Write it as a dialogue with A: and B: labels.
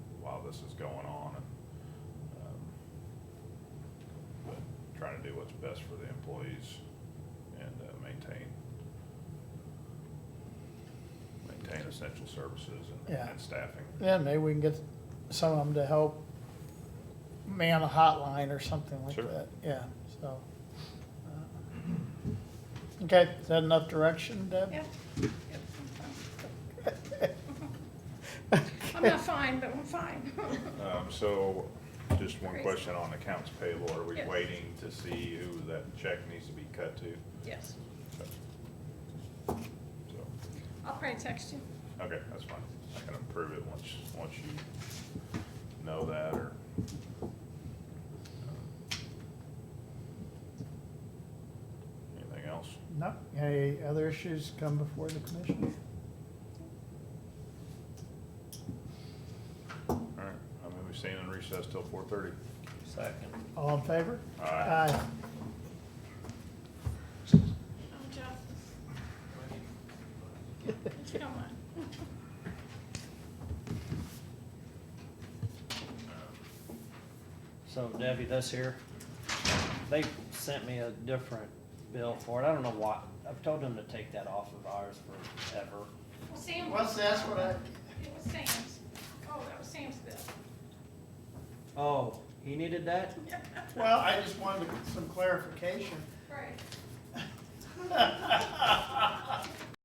A: this is going on and, um, but trying to do what's best for the employees and uh, maintain, maintain essential services and,
B: Yeah.
A: and staffing.
B: Yeah, maybe we can get some of them to help man a hotline or something like
A: Sure.
B: that. Yeah, so. uh, Okay, is that enough direction, Deb?
C: Yeah. Yep, I'm fine. I'm not fine, but I'm fine.
A: Um, so, just one
C: Crazy.
A: question on accounts payable, are we
C: Yes.
A: waiting to see who that check needs to be cut to?
C: Yes,
A: So,
C: I'll probably text you.
A: okay, that's fine, I can approve it once, once you know that or. um, Anything else?
B: No, any other issues come before the commission?
A: All right, I'm gonna be staying in recess till four thirty.
D: Second.
B: All in favor?
A: Aye.
C: Oh, Jeff. If you don't mind.
D: So Debbie, this here, they sent me a different bill for it. I don't know why. I've told them to take that off of ours forever.
C: Well, Sam.
E: What's that? That's what I-
C: It was Sam's. Oh, that was Sam's bill.
D: Oh, he needed that?
E: Well, I just wanted some clarification.
C: Right.
E: I